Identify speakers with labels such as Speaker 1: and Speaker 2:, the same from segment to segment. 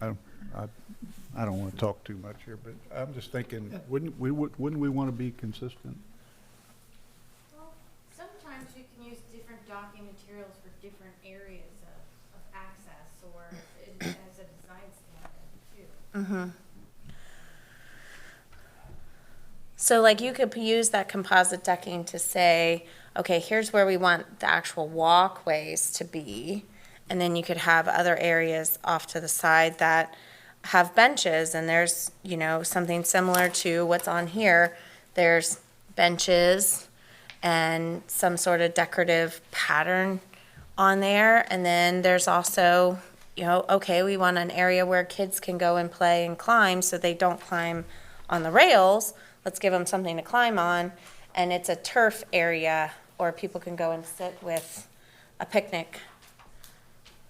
Speaker 1: I don't, I, I don't want to talk too much here, but I'm just thinking, wouldn't we, would- wouldn't we want to be consistent?
Speaker 2: Well, sometimes you can use different docking materials for different areas of, of access or in- as a design standard too.
Speaker 3: Mm-hmm. So like you could p- use that composite decking to say, okay, here's where we want the actual walkways to be. And then you could have other areas off to the side that have benches and there's, you know, something similar to what's on here. There's benches and some sort of decorative pattern on there. And then there's also, you know, okay, we want an area where kids can go and play and climb so they don't climb on the rails. Let's give them something to climb on. And it's a turf area, or people can go and sit with a picnic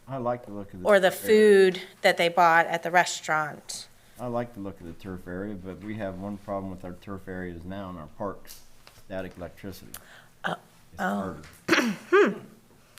Speaker 4: I like the look of the.
Speaker 3: or the
Speaker 4: turf area.
Speaker 3: food that they bought at the restaurant.
Speaker 4: I like the look of the turf area, but we have one problem with our turf areas now in our parks, static electricity.
Speaker 3: Uh,
Speaker 4: It's harder.
Speaker 3: oh.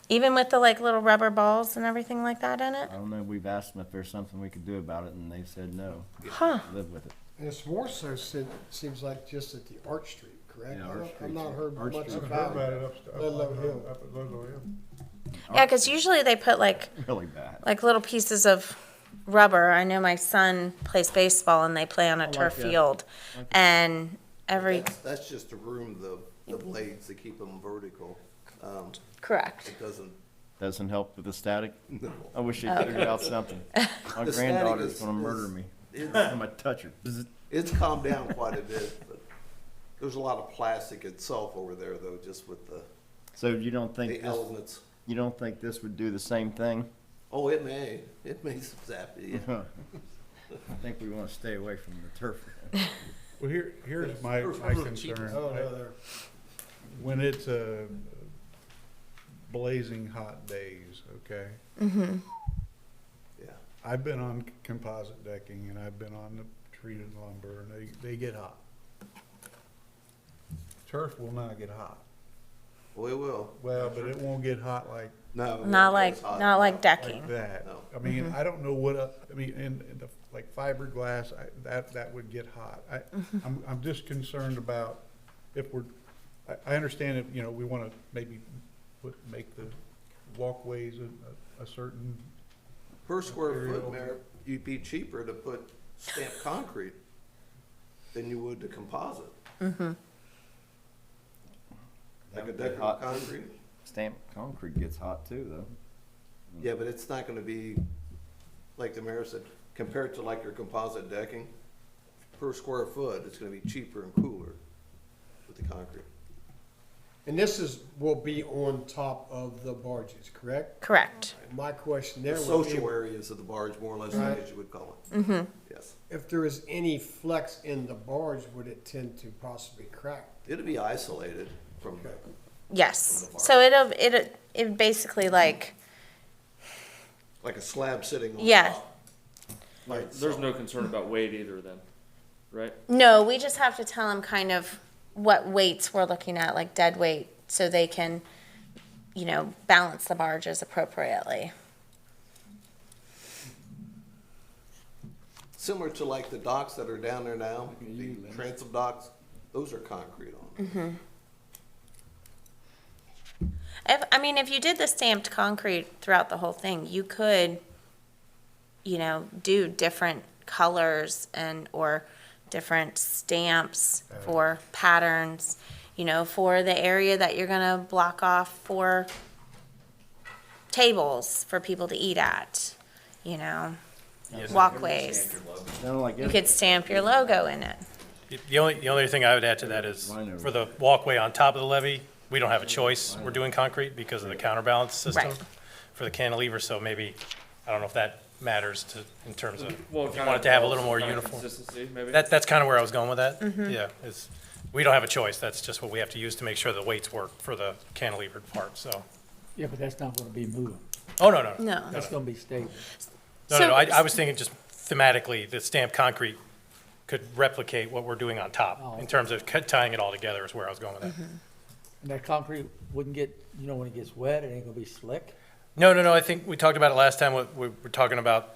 Speaker 3: Even with the like little rubber balls and everything like that in it.
Speaker 4: I don't know, we've asked them if there's something we could do about it, and they've said no.
Speaker 3: Huh.
Speaker 4: Live with it.
Speaker 5: And it's more so, se- seems like just at the Arch Street, correct?
Speaker 4: Yeah,
Speaker 5: I
Speaker 4: Arch
Speaker 5: don't-
Speaker 4: Street's-
Speaker 5: I've not heard
Speaker 4: Arch
Speaker 5: much
Speaker 4: Street's
Speaker 5: about it.
Speaker 1: up, uh,
Speaker 5: Ludlow on- Hill.
Speaker 1: up at Ludlow Hill.
Speaker 3: Yeah, because usually they put like
Speaker 4: Really bad.
Speaker 3: like little pieces of rubber. I know my son plays baseball and they play on a turf
Speaker 4: that.
Speaker 3: field, and every
Speaker 6: That's, that's just to room the, the blades to keep them vertical. Um,
Speaker 3: correct.
Speaker 6: it doesn't,
Speaker 4: Doesn't help with the static.
Speaker 6: no.
Speaker 4: I wish
Speaker 3: Oh.
Speaker 4: they figured out something. My
Speaker 6: The static
Speaker 4: granddaughter's
Speaker 6: is-
Speaker 4: gonna murder
Speaker 6: is-
Speaker 4: me.
Speaker 6: It's,
Speaker 4: I'm gonna touch her. Bzzz.
Speaker 6: it's calmed down quite a bit, but there's a lot of plastic itself over there though, just with the,
Speaker 4: So you don't think
Speaker 6: the
Speaker 4: this,
Speaker 6: elements.
Speaker 4: you don't think this would do the same thing?
Speaker 6: Oh, it may, it may zap you.
Speaker 4: I think we wanna stay away from the turf.
Speaker 1: Well, here, here's my, my concern.
Speaker 5: Oh, no, they're-
Speaker 1: When it's uh, blazing hot days, okay?
Speaker 6: Yeah.
Speaker 1: I've been on composite decking and I've been on the treated lumber and they, they get hot. Turf will not get hot.
Speaker 6: Well, it will. uh,
Speaker 1: Well, but it won't get hot like
Speaker 6: No. it won't
Speaker 3: Not
Speaker 6: be
Speaker 3: like
Speaker 6: as hot.
Speaker 3: not like decking.
Speaker 1: like that.
Speaker 6: No.
Speaker 1: I mean, I don't know what, el- I mean, and, and the, like fiberglass, I, that, that would get hot. I, I'm, I'm just concerned about if we're, I, I understand if, you know, we wanna maybe put, make the walkways a, a- a certain,
Speaker 6: Per square
Speaker 1: Material.
Speaker 6: foot, Mayor, you'd be cheaper to put stamped concrete than you would to composite.
Speaker 3: Mm-hmm.
Speaker 6: Like a
Speaker 4: That'd be
Speaker 6: decorative
Speaker 4: hot.
Speaker 6: concrete.
Speaker 4: Stamped concrete gets hot too, though.
Speaker 6: Yeah, but it's not gonna be, like the mayor said, compared to like your composite decking, per square foot, it's gonna be cheaper and cooler with the concrete.
Speaker 5: And this is, will be on top of the barges, correct?
Speaker 3: Correct.
Speaker 5: My question
Speaker 6: The
Speaker 5: there would
Speaker 6: social
Speaker 5: be,
Speaker 6: areas of the barge, more or less,
Speaker 5: Right.
Speaker 6: as you would call it. Mm-hmm. Yes.
Speaker 5: if there is any flex in the barge, would it tend to possibly crack?
Speaker 6: It'd be isolated from,
Speaker 3: Yes.
Speaker 6: From the
Speaker 3: So it'll it it basically like
Speaker 6: like a slab sitting on top.
Speaker 3: Yeah.
Speaker 6: by
Speaker 7: There's
Speaker 6: itself.
Speaker 7: no concern about weight either then, right?
Speaker 3: no. We just have to tell them kind of what weights we're looking at, like dead weight, so they can you know balance the barges appropriately.
Speaker 6: Similar to like the docks that are down there now, the transom docks, those are concrete on. them.
Speaker 3: If, I mean, if you did the stamped concrete throughout the whole thing, you could, you know, do different colors and or different stamps for patterns, you know, for the area that you're gonna block off for tables for people to eat at, you know, walkways.
Speaker 4: Sound like
Speaker 3: You could stamp your logo in it.
Speaker 8: The only, the only thing I would add to that is,
Speaker 4: Mine are-
Speaker 8: for the walkway on top of the levee, we don't have a choice. We're doing concrete because of the counterbalance system
Speaker 3: Right.
Speaker 8: for the cantilever, so maybe, I don't know if that matters to, in terms of,
Speaker 7: Well,
Speaker 8: if you
Speaker 7: kind
Speaker 8: wanted
Speaker 7: of
Speaker 8: to have a
Speaker 7: balance
Speaker 8: little
Speaker 7: and
Speaker 8: more
Speaker 7: kind of
Speaker 8: uniform.
Speaker 7: Consistency, maybe?
Speaker 8: That, that's kind of where I was going with that. Yeah, is, we don't have a choice. That's just what we have to use to make sure the weights work for the cantilever part, so.
Speaker 9: Yeah, but that's not gonna be moving.
Speaker 8: Oh, no, no.
Speaker 3: No.
Speaker 9: That's gonna be stable.
Speaker 8: No, no,
Speaker 3: So-
Speaker 8: no, I, I was thinking just thematically, the stamped concrete could replicate what we're doing on top,
Speaker 9: Oh.
Speaker 8: in terms of cut- tying it all together is where I was going with that.
Speaker 9: And that concrete wouldn't get, you know, when it gets wet, it ain't gonna be slick.
Speaker 8: No, no, no, I think we talked about it last time, we, we were talking about